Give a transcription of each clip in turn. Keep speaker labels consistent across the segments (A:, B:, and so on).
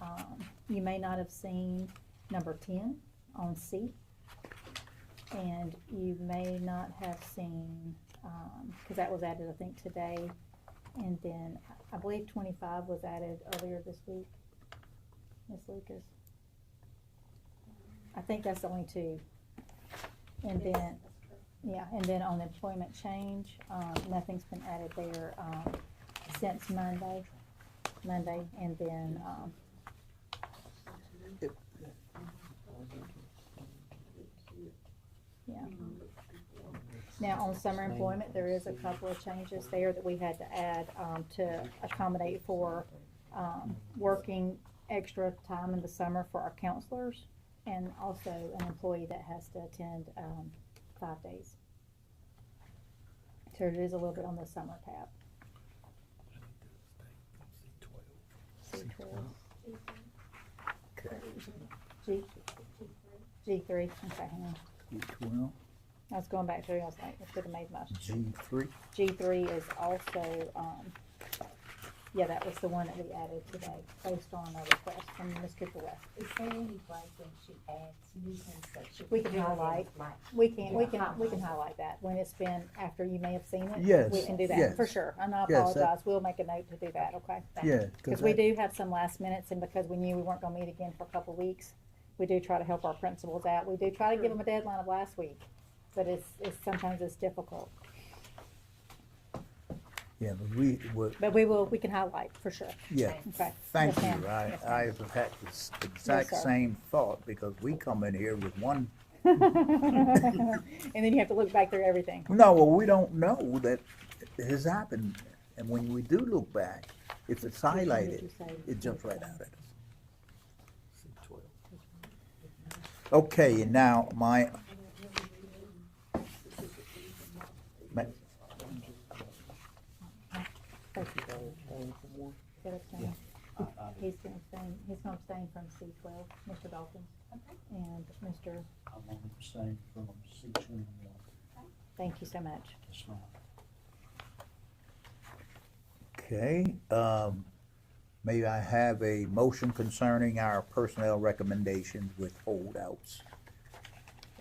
A: Um, you may not have seen number ten on C. And you may not have seen, um, cause that was added, I think, today. And then I believe twenty-five was added earlier this week. Ms. Lucas. I think that's the only two. And then, yeah, and then on the employment change, um, nothing's been added there, um, since Monday, Monday, and then, um, yeah. Now, on summer employment, there is a couple of changes there that we had to add, um, to accommodate for, um, working extra time in the summer for our counselors, and also an employee that has to attend, um, five days. So it is a little bit on the summer tab. C twelve. G, G three, okay, hang on,
B: G twelve,
A: I was going back through, I was like, I should have made my,
B: G three.
A: G three is also, um, yeah, that was the one that we added today, based on a request from Ms. Cooper West.
C: Is there any way when she adds new things that she?
A: We can highlight.
C: Like,
A: We can, we
C: Yeah.
A: can, we can highlight that, when it's been, after you may have seen it.
B: Yes,
A: We can do that, for
B: yes.
A: sure, and I
B: Yes, that-
A: apologize, we'll make a note to do that, okay?
C: that-
B: Yeah,
A: Because
B: cause
A: we
B: I,
A: do have some last minutes, and because we knew we weren't gonna meet again for a couple weeks, we do try to help our principals out. We do try to give them a deadline of last week, but it's, it's, sometimes it's difficult.
B: yeah, but we, were
A: But we will, we can highlight, for sure.
B: yeah.
A: Okay.
B: Thank
A: Yes, ma'am.
B: you. I,
A: Yes,
B: I
A: ma'am.
B: have had the s- exact
A: sir.
B: same thought because we come in here with one,
A: And then you have to look back through everything.
B: no, well, we don't know that it has happened. And when we do look back, if it's highlighted, it jumps right out at us. Okay, and now my. ma-
A: He's gonna abstain, he's gonna abstain from C twelve, Mr. Dalton.
C: Okay.
A: And Mr.,
D: I'm on the same from C twenty-one,
A: thank you so much.
D: that's right.
B: Okay, um, may I have a motion concerning our personnel recommendations with holdouts?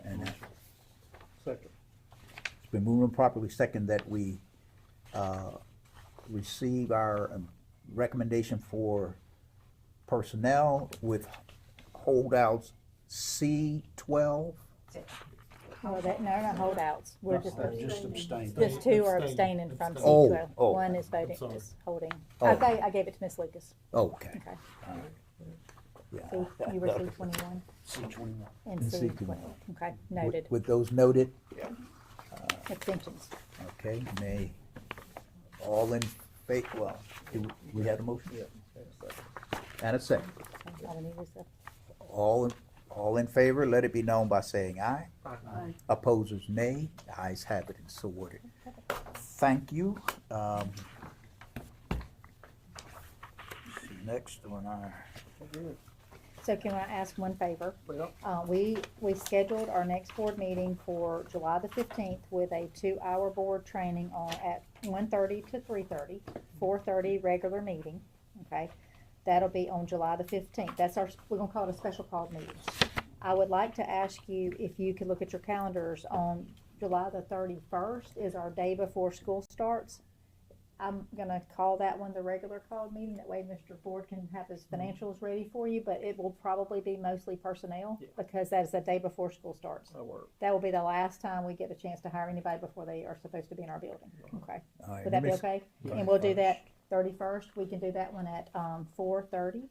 B: And it's
E: Second.
B: been moved and properly second that we, uh, receive our um, recommendation for personnel with holdouts C twelve?
A: Oh, that, no, no, holdouts, we're just.
D: No, Just abstain.
A: Just two are abstaining from C
B: Oh,
A: twelve.
B: oh.
A: One is voting,
E: sorry.
A: is holding.
B: Oh.
A: Okay, I gave it to Miss Lucas.
B: Okay,
A: Okay.
B: yeah.
A: So you were C twenty-one
D: C twenty-one.
A: and
B: And
A: C
B: C
A: twelve.
B: 21.
A: Okay,
B: With-
A: noted.
B: With those noted,
A: Abstentions.
B: okay, may, all in fa, well, do we have a motion? And a second.
A: So I don't need this up.
B: All, all in favor, let it be known by saying aye.
C: Aye.
B: Opposers, nay. Ayes have it and so ordered. Thank you. Um, see, Next on our,
A: So can I ask one favor?
E: Well.
A: Uh, we, we scheduled our next board meeting for July the fifteenth with a two-hour board training on, at one-thirty to three-thirty, four-thirty regular meeting, okay? That'll be on July the fifteenth. That's our, we're gonna call it a special call meeting. I would like to ask you if you could look at your calendars on July the thirty-first is our day before school starts. I'm gonna call that one the regular call meeting, that way Mr. Ford can have his
E: Mm-hmm.
A: financials ready for you, but it will probably be mostly personnel,
E: Yeah.
A: because that is the day before school starts.
E: I work.
A: That will be the last time we get a chance to hire anybody before they are supposed to be in our building, okay?
B: all right,
A: Would that
B: let me
A: be
B: s-
A: okay? And we'll do that thirty-first, we can do that one at, um, four thirty.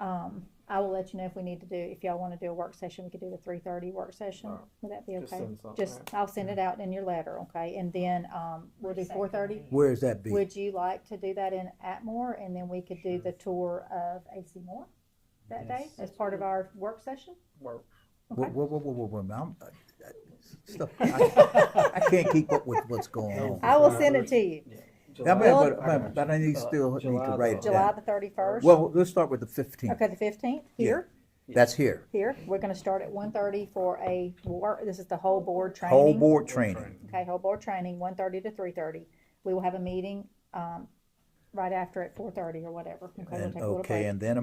A: Um, I will let you know if we need to do, if y'all wanna do a work session, we could do the three-thirty work session,
E: Alright.
A: would that be
E: Just
A: okay?
E: send something
A: Just,
E: out.
A: I'll send it out in your letter, okay, and then, um, we'll do four thirty?
B: Where is that be?
A: Would you like to do that in Atmore, and then we could do the tour of AC Moore that day
D: Yes.
A: as part of our work session?
E: Work.
B: Whoa,
A: okay.
B: whoa, whoa, whoa, whoa, whoa, I'm, I- I- stuff, I I can't keep up with what's going on.
A: I will send it to you,
B: Yeah,
E: July-
B: But,
E: I
B: but-
E: got
B: but I need still need
E: July
B: to write it
E: the-
A: July
B: down.
A: the thirty-first.
B: Well, let's start with the fifteenth.
A: Okay, the fifteenth,
B: Yeah.
A: here,
B: That's here.
A: here, we're gonna start at one thirty for a work, this is the whole board training.
B: Whole board training.
A: Okay, whole board training, one thirty to three thirty, we will have a meeting, um, right after at four thirty or whatever, okay, we'll
B: And,
A: take a little break.
B: okay, and then